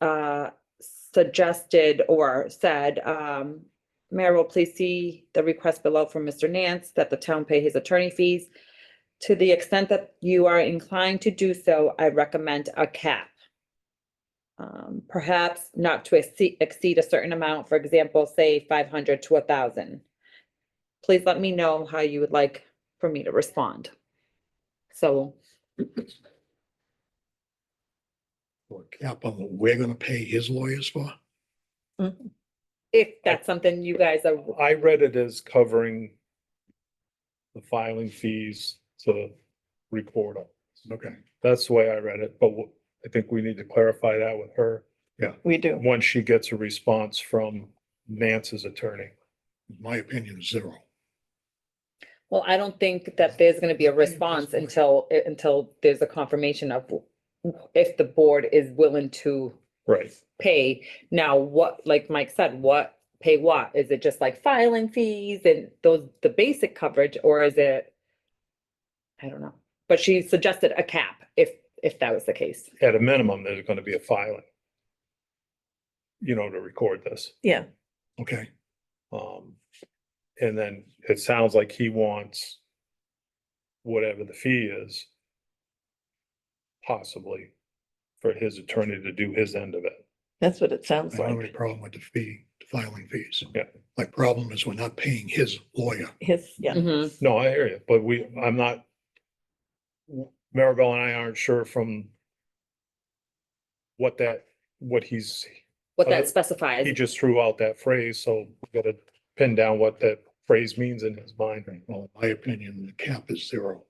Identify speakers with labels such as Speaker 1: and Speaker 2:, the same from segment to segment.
Speaker 1: uh, suggested or said, um, Mayor will please see the request below from Mr. Nance that the town pay his attorney fees. To the extent that you are inclined to do so, I recommend a cap. Um, perhaps not to exceed, exceed a certain amount, for example, say five hundred to a thousand. Please let me know how you would like for me to respond. So,
Speaker 2: Or cap on what we're gonna pay his lawyers for?
Speaker 3: Mm.
Speaker 1: if that's something you guys are,
Speaker 4: I read it as covering the filing fees to record on.
Speaker 2: Okay,
Speaker 4: That's the way I read it, but wh- I think we need to clarify that with her
Speaker 3: We do.
Speaker 4: once she gets a response from Nance's attorney.
Speaker 2: my opinion is zero.
Speaker 1: well, I don't think that there's gonna be a response until, eh, until there's a confirmation of if the board is willing to
Speaker 4: Right.
Speaker 1: pay. Now, what, like Mike said, what, pay what? Is it just like filing fees and those, the basic coverage, or is it? I don't know, but she suggested a cap if, if that was the case.
Speaker 4: At a minimum, there's gonna be a filing. You know, to record this.
Speaker 3: Yeah,
Speaker 2: Okay,
Speaker 4: Um, and then it sounds like he wants whatever the fee is possibly for his attorney to do his end of it.
Speaker 3: that's what it
Speaker 2: I
Speaker 3: sounds
Speaker 2: don't have any
Speaker 3: like.
Speaker 2: problem with the fee, the filing fees.
Speaker 4: Yeah.
Speaker 2: My problem is we're not paying his lawyer.
Speaker 3: His,
Speaker 4: Mm-hmm.
Speaker 3: yeah,
Speaker 1: Mhm.
Speaker 4: No, I hear you, but we, I'm not, Maribel and I aren't sure from what that, what he's,
Speaker 1: What
Speaker 4: Other-
Speaker 1: that
Speaker 4: he
Speaker 1: specifies,
Speaker 4: just threw out that phrase, so we gotta pin down what that phrase means in his mind.
Speaker 2: Well, in my opinion, the cap is zero.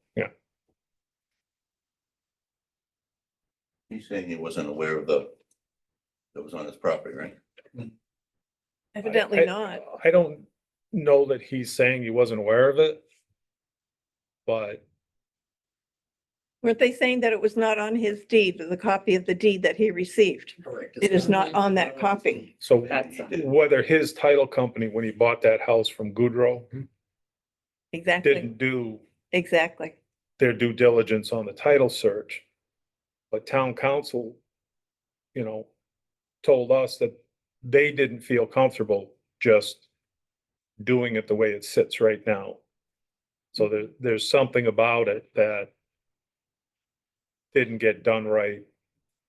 Speaker 5: He's saying he wasn't aware of the, that was on his property, right?
Speaker 4: I- I-
Speaker 3: evidently not.
Speaker 4: I don't know that he's saying he wasn't aware of it. But
Speaker 3: Weren't they saying that it was not on his deed, the copy of the deed that he received?
Speaker 5: Correct.
Speaker 3: It is not on that copy.
Speaker 4: So
Speaker 1: That's-
Speaker 4: whether his title company, when he bought that house from Goodrow,
Speaker 3: Exactly,
Speaker 4: didn't do
Speaker 3: exactly.
Speaker 4: their due diligence on the title search. But town council, you know, told us that they didn't feel comfortable just doing it the way it sits right now. So there, there's something about it that didn't get done right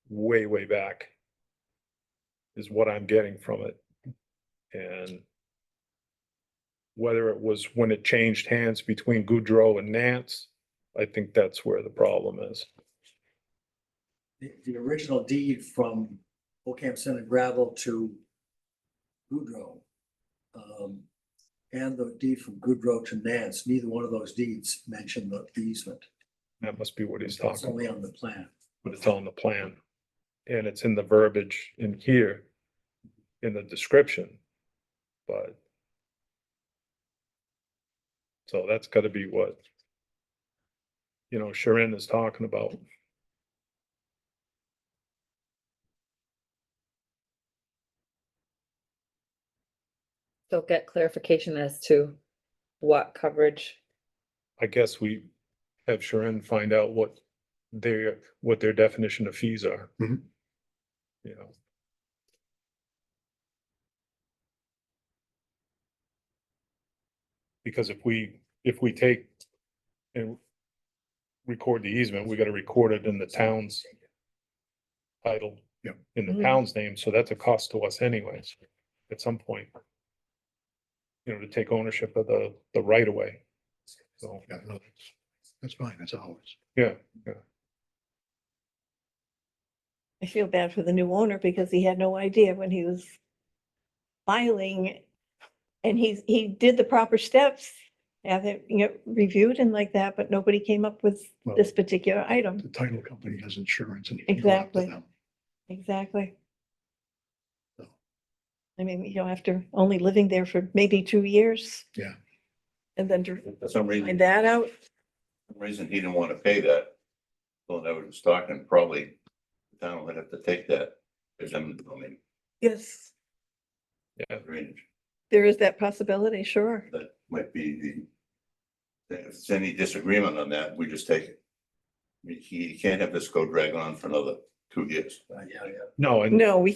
Speaker 4: way, way back is what I'm getting from it. And whether it was when it changed hands between Goudreau and Nance, I think that's where the problem is.
Speaker 6: the, the original deed from Ocam Center Gravel to Goodrow. Um, and the deed from Goodrow to Nance, neither one of those deeds mentioned the easement.
Speaker 4: That must be what he's
Speaker 6: It's
Speaker 4: talking
Speaker 6: only
Speaker 4: about,
Speaker 6: on the plan.
Speaker 4: but it's on the plan. And it's in the verbiage in here, in the description, but. So that's gotta be what, you know, Sharon is talking about.
Speaker 1: so get clarification as to what coverage.
Speaker 4: I guess we have Sharon find out what their, what their definition of fees are.
Speaker 2: Mhm.
Speaker 4: You know, Because if we, if we take and record the easement, we gotta record it in the town's title.
Speaker 2: Yeah.
Speaker 4: In the
Speaker 3: Mhm.
Speaker 4: town's name, so that's a cost to us anyways, at some point. You know, to take ownership of the, the right of way. So.
Speaker 2: Yeah, no, that's- That's fine, that's ours.
Speaker 4: Yeah,
Speaker 3: I feel bad for the new owner because he had no idea when he was filing. And he's, he did the proper steps, have it, you know, reviewed and like that, but nobody came up with
Speaker 2: Well,
Speaker 3: this particular item.
Speaker 2: The title company has insurance and. he can go after
Speaker 3: Exactly.
Speaker 2: them.
Speaker 3: Exactly.
Speaker 2: So.
Speaker 3: I mean, you know, after only living there for maybe two years.
Speaker 2: Yeah.
Speaker 3: And then to
Speaker 5: For some reason,
Speaker 3: find
Speaker 5: for
Speaker 3: that out,
Speaker 5: some reason he didn't want to pay that. So that was Stockton, probably the town would have to take that. There's, I mean,
Speaker 3: yes,
Speaker 4: yeah,
Speaker 5: drainage,
Speaker 3: there is that possibility, sure.
Speaker 5: that might be the. If there's any disagreement on that, we just take it. I mean, He can't have this go drag on for another two years.
Speaker 6: Uh, yeah, yeah.
Speaker 4: no, and
Speaker 3: No, we